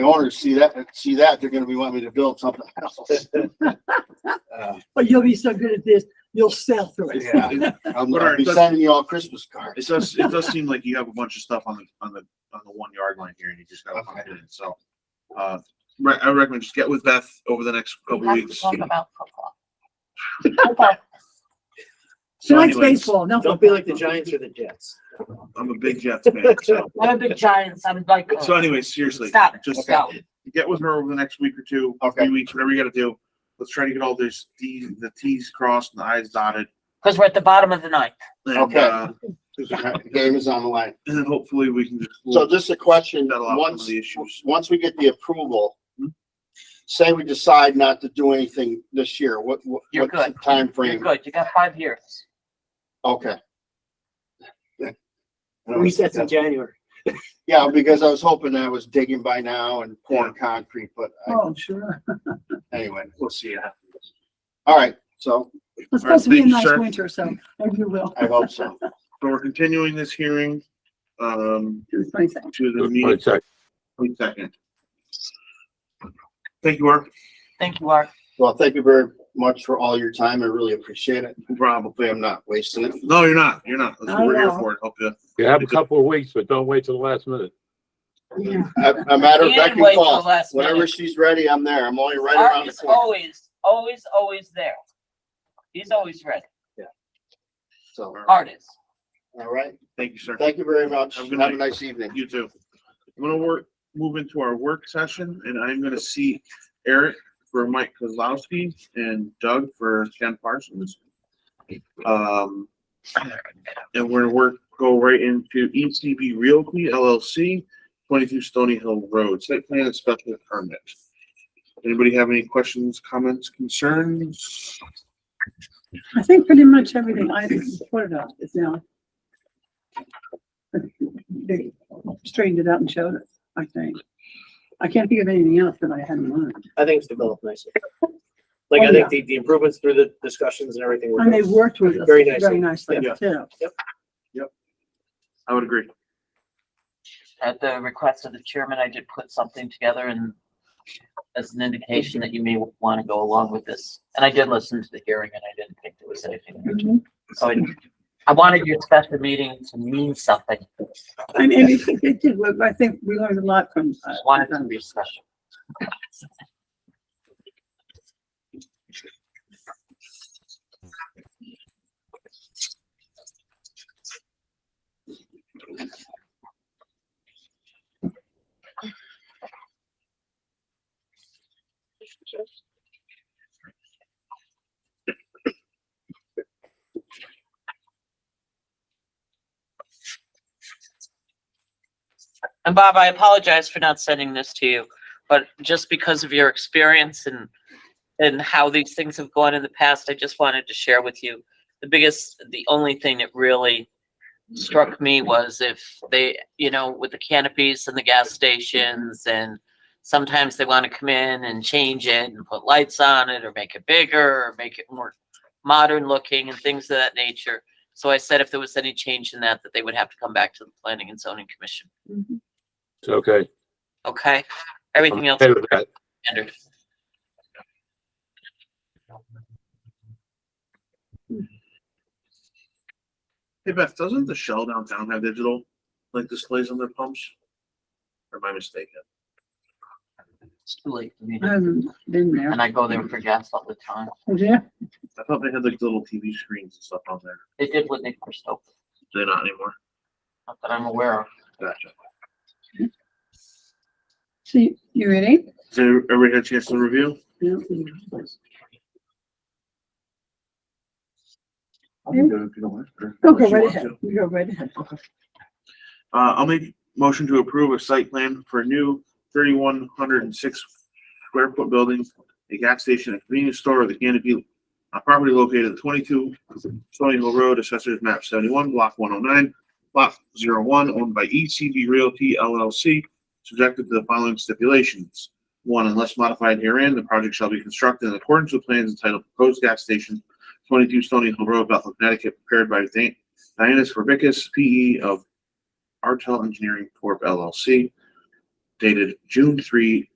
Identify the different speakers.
Speaker 1: the owners see that, see that, they're gonna be wanting me to build something else.
Speaker 2: Uh,
Speaker 3: But you'll be so good at this, you'll sell through it.
Speaker 2: Yeah,
Speaker 1: I'm
Speaker 4: But
Speaker 1: gonna
Speaker 4: alright,
Speaker 1: be
Speaker 4: that's-
Speaker 1: sending you all Christmas cards.
Speaker 4: It does, it does seem like you have a bunch of stuff on the, on the, on the one yard line here and you just gotta find it, so. Uh, re- I recommend just get with Beth over the next couple
Speaker 5: have to
Speaker 4: weeks.
Speaker 5: talk about football.
Speaker 4: So
Speaker 3: Tonight's
Speaker 4: anyways,
Speaker 3: baseball, no.
Speaker 2: Don't be like the Giants or the Jets.
Speaker 4: I'm a big Jets fan, so.
Speaker 5: I'm a big Giants, I'm like,
Speaker 4: So anyway, seriously.
Speaker 5: stop, it,
Speaker 4: Just
Speaker 5: stop.
Speaker 4: get with her over the next week or two,
Speaker 1: Okay.
Speaker 4: three weeks, whatever you gotta do. Let's try to get all these, Ds the Ts crossed and the Is dotted.
Speaker 5: Because we're at the bottom of the ninth.
Speaker 4: And,
Speaker 1: Okay.
Speaker 4: uh,
Speaker 1: The Game is on the line.
Speaker 4: And then hopefully we can just.
Speaker 1: So just a question,
Speaker 4: That'll help some of
Speaker 1: once,
Speaker 4: the issues.
Speaker 1: once we get the approval,
Speaker 4: Hmm.
Speaker 1: say we decide not to do anything this year, what, what,
Speaker 5: You're
Speaker 1: what's the
Speaker 5: good. You're
Speaker 1: timeframe?
Speaker 5: good, you got five years.
Speaker 1: Okay.
Speaker 2: Resets in January.
Speaker 1: Yeah, because I was hoping that I was digging by now and pouring concrete, but I-
Speaker 3: Oh, sure.
Speaker 1: anyway,
Speaker 4: We'll see. what happens.
Speaker 1: all right, so
Speaker 3: It's supposed to be a
Speaker 4: Thank you,
Speaker 3: nice
Speaker 4: sir.
Speaker 3: winter, so maybe you will.
Speaker 1: I hope so.
Speaker 4: So we're continuing this hearing, um,
Speaker 3: It was funny saying.
Speaker 4: to the meeting.
Speaker 6: Twenty-second.
Speaker 4: Wait a second. Thank you, Art.
Speaker 5: Thank you, Art.
Speaker 1: Well, thank you very much for all your time. I really appreciate it.
Speaker 4: Bravo.
Speaker 1: Hopefully I'm not wasting it.
Speaker 4: No, you're not. You're not. That's what we're here
Speaker 3: Oh, no.
Speaker 4: for. Help you.
Speaker 6: You have a couple of weeks, but don't wait till the last minute.
Speaker 1: I- I'm at her
Speaker 5: You
Speaker 1: beck
Speaker 5: didn't
Speaker 1: and
Speaker 5: wait till
Speaker 1: call.
Speaker 5: last
Speaker 1: Whenever
Speaker 5: minute.
Speaker 1: she's ready, I'm there. I'm only right around
Speaker 5: Art
Speaker 1: the
Speaker 5: is
Speaker 1: corner.
Speaker 5: always, always, always there. He's always ready.
Speaker 1: So,
Speaker 5: Art is.
Speaker 1: all right.
Speaker 4: Thank you, sir.
Speaker 1: Thank you very much.
Speaker 4: Have a
Speaker 1: Have
Speaker 4: good
Speaker 1: a
Speaker 4: night.
Speaker 1: nice evening.
Speaker 4: You too. I'm gonna work, move into our work session and I'm gonna see Eric for Mike Kozlowski and Doug for Ken Parsons. Um, and we're gonna work, go right into ECB Realty LLC, twenty-two Stony Hill Road, site plan and special permit. Anybody have any questions, comments, concerns?
Speaker 3: I think pretty much everything I reported on is now. They straightened it out and showed us, I think. I can't think of anything else that I had in mind.
Speaker 2: I think it's developed nicely. Like, I
Speaker 3: Oh, yeah.
Speaker 2: think the, the improvements through the discussions and everything. were
Speaker 3: And they
Speaker 2: good.
Speaker 3: worked with us
Speaker 2: Very nicely.
Speaker 3: very nicely,
Speaker 4: Yeah.
Speaker 3: too.
Speaker 4: I would agree.
Speaker 5: At the request of the chairman, I did put something together and as an indication that you may want to go along with this. And I did listen to the hearing and I didn't think there was anything.
Speaker 3: Mm-hmm.
Speaker 5: So I, I wanted your special meeting to mean something.
Speaker 3: And and it it did, well, I think we learned a lot from. uh,
Speaker 5: I wanted it to be special. And Bob, I apologize for not sending this to you, but just because of your experience and, and how these things have gone in the past, I just wanted to share with you. The biggest, the only thing that really struck me was if they, you know, with the canopies and the gas stations and sometimes they want to come in and change it and put lights on it or make it bigger or make it more modern looking and things of that nature. So I said if there was any change in that, that they would have to come back to the planning and zoning commission.
Speaker 3: Mhm.
Speaker 6: It's okay.
Speaker 5: Okay,
Speaker 6: I'm
Speaker 5: everything else
Speaker 6: okay
Speaker 5: is
Speaker 6: with that.
Speaker 5: standard.
Speaker 4: Hey Beth, doesn't the Shell downtown have digital, like displays on their pumps? Or am I mistaken?
Speaker 5: It's too late for me,
Speaker 3: I haven't been there.
Speaker 5: and I go there for gas all the time.
Speaker 3: Yeah,
Speaker 4: I thought they had like little TV screens and stuff on there.
Speaker 5: They did what they first opened,
Speaker 4: They're not anymore.
Speaker 5: not that I'm aware of.
Speaker 4: Gotcha.
Speaker 3: see, you ready?
Speaker 4: Has everybody had a chance to review?
Speaker 3: Yeah.
Speaker 4: I'll
Speaker 3: can
Speaker 4: do it if you don't mind.
Speaker 3: Go, go Hmm? right ahead, you go right ahead.
Speaker 4: Uh, I'll make motion to approve a site plan for a new thirty-one hundred and six square foot building, a gas station, a convenience store, the canopy, a property located at twenty-two Stony Hill Road, assessors map seventy-one, block one oh nine, block 01, owned by ECB Realty LLC, subjected to the following stipulations. One, unless modified herein, the project shall be constructed in accordance with plans entitled proposed gas station, twenty-two Stony Hill Road, Bethel, Connecticut, prepared by Dan- Dianis Verbicus, P E of Artel Engineering Corp. LLC. dated June three,